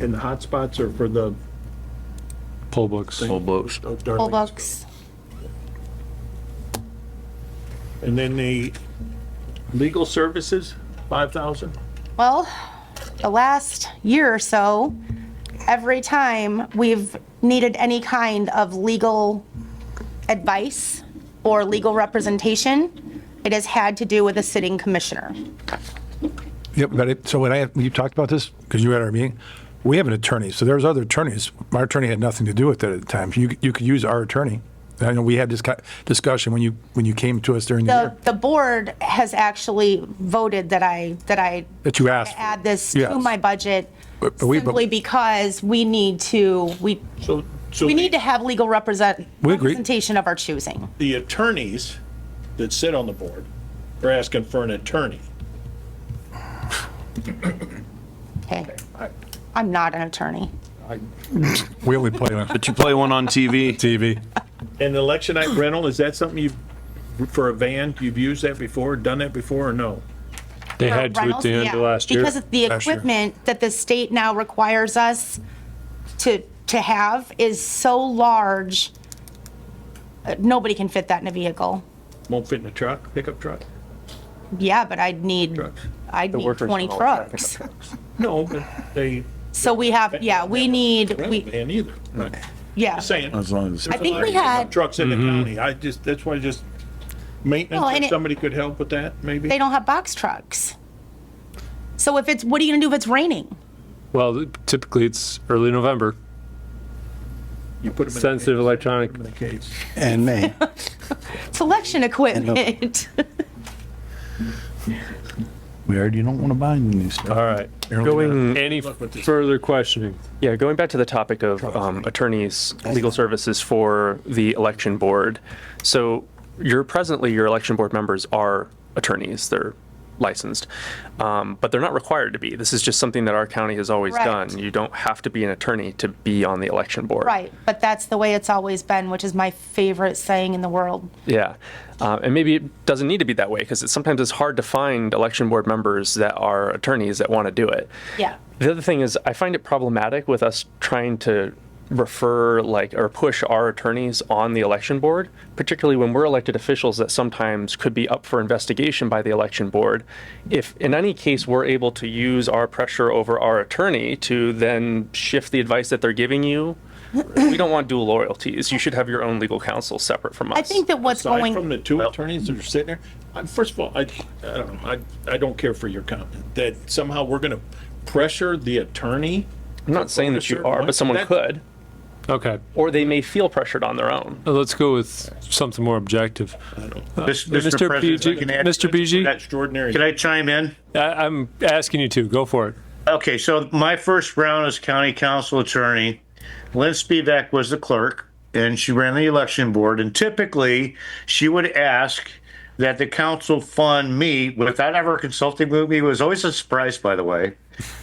And the hotspots are for the poll books. Poll books. oh, Poll Darlings. books. And then the legal services, 5,000? Well, the last year or so, every time we've needed any kind of legal advice or legal representation, it has had to do with a sitting commissioner. Yep, but it, so when I, you talked about this, because you had our meeting, we have an attorney, so there's other attorneys. Our attorney had nothing to do with it at the time. You, you could use our attorney. I know we had this ki- discussion when you, when you came to us during the The, year, the board has actually voted that I, that I that you asked. add this Yes. to my budget But- but we- but- simply because we need to, we, So, so we need to have legal represent, We agree. representation of our choosing. the attorneys that sit on the board are asking for an attorney. Okay. I'm not an attorney. We only play on But you play one on TV. TV. And the election night rental, is that something you've, for a van, you've used that before, done that before, or no? They for had to at rentals, the end yeah, of last year. Because of the Last year. equipment that the state now requires us to, to have is so large, uh, nobody can fit that in a vehicle. Won't fit in a truck, pickup truck? Yeah, but I'd need, Trucks. I'd need 20 trucks. No, but they, So we have, yeah, we need, rent a we, van either. yeah. Saying. As long as. I think we had, Trucks in the county, I just, that's why just Well, and maintenance, if it- somebody could help with that, maybe? they don't have box trucks. So if it's, what are you gonna do if it's raining? Well, typically it's early November. You put 'em in a Sensitive case. electronic. Put 'em in a case. And May. Selection equipment. We already don't want to buy any new stuff. All right. Going, Any further questioning? yeah, going back to the topic of um, attorneys, legal services for the election board. So you're presently, your election board members are attorneys. They're licensed, um, but they're not required to be. This is just something that our county has always Correct. done. You don't have to be an attorney to be on the election board. Right, but that's the way it's always been, which is my favorite saying in the world. Yeah, uh, and maybe it doesn't need to be that way because it's, sometimes it's hard to find election board members that are attorneys that want to do it. Yeah. The other thing is, I find it problematic with us trying to refer like or push our attorneys on the election board, particularly when we're elected officials that sometimes could be up for investigation by the election board. If in any case we're able to use our pressure over our attorney to then shift the advice that they're giving you, we don't want dual loyalties. You should have your own legal counsel separate from us. I think that what's aside going. from the two attorneys that are sitting there, I, first of all, I, I don't know, I, I don't care for your comment, that somehow we're gonna pressure the attorney. I'm not saying that you are, but someone That's- could, Okay, or they may feel pressured on their own. uh, let's go with something more objective. Mr. Mr. President, PG I can add- Mr. PG? Can I- Extraordinary. Can I chime in? I, I'm asking you to, go for it. Okay, so my first round as county council attorney, Lynn Spivak was the clerk and she ran the election board. And typically, she would ask that the council fund me without ever consulting with me. It was always a surprise, by the way,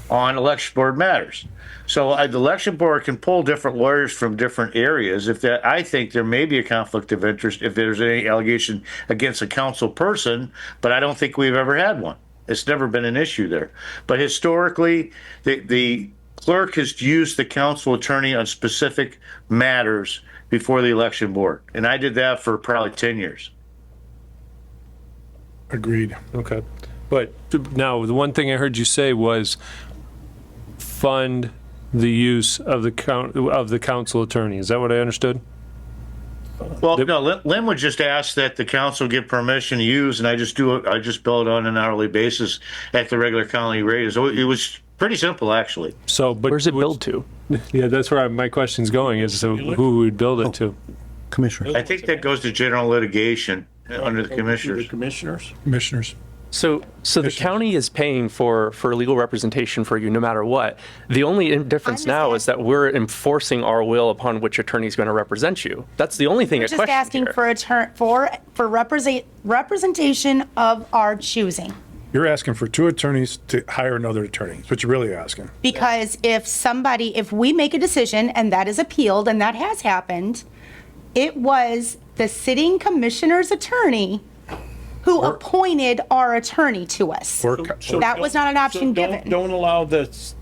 on election board matters. So uh, the election board can pull different lawyers from different areas. If that, I think there may be a conflict of interest if there's any allegation against a council person, but I don't think we've ever had one. It's never been an issue there. But historically, the, the clerk has used the council attorney on specific matters before the election board. And I did that for probably 10 years. Agreed. Okay. But now, the one thing I heard you say was fund the use of the count, of the council attorney. Is that what I understood? Well, no, Lin- Lynn would just ask that the council give permission to use, and I just do, it- I just bill it on an hourly basis at the regular county rate. So it was pretty simple, actually. So, but. Where's it billed to? Yeah, that's where my question's going is so who would build Oh. it to? Commissioner. I think that goes to general litigation uh, under the The commissioners. commissioners? Commissioners. So, so the county is paying for, for legal representation for you no matter what. The only in- difference just now ask- is that we're enforcing our will upon which attorney's going to represent you. That's the only thing at Just question asking here. for a turn, for, for represent, representation of our choosing. You're asking for two attorneys to hire another attorney. That's what you're really asking. Because if somebody, if we make a decision and that is appealed, and that has happened, it was the sitting commissioner's attorney who appointed our attorney to us. Or co- That was not an option So don't- given. Don't allow the,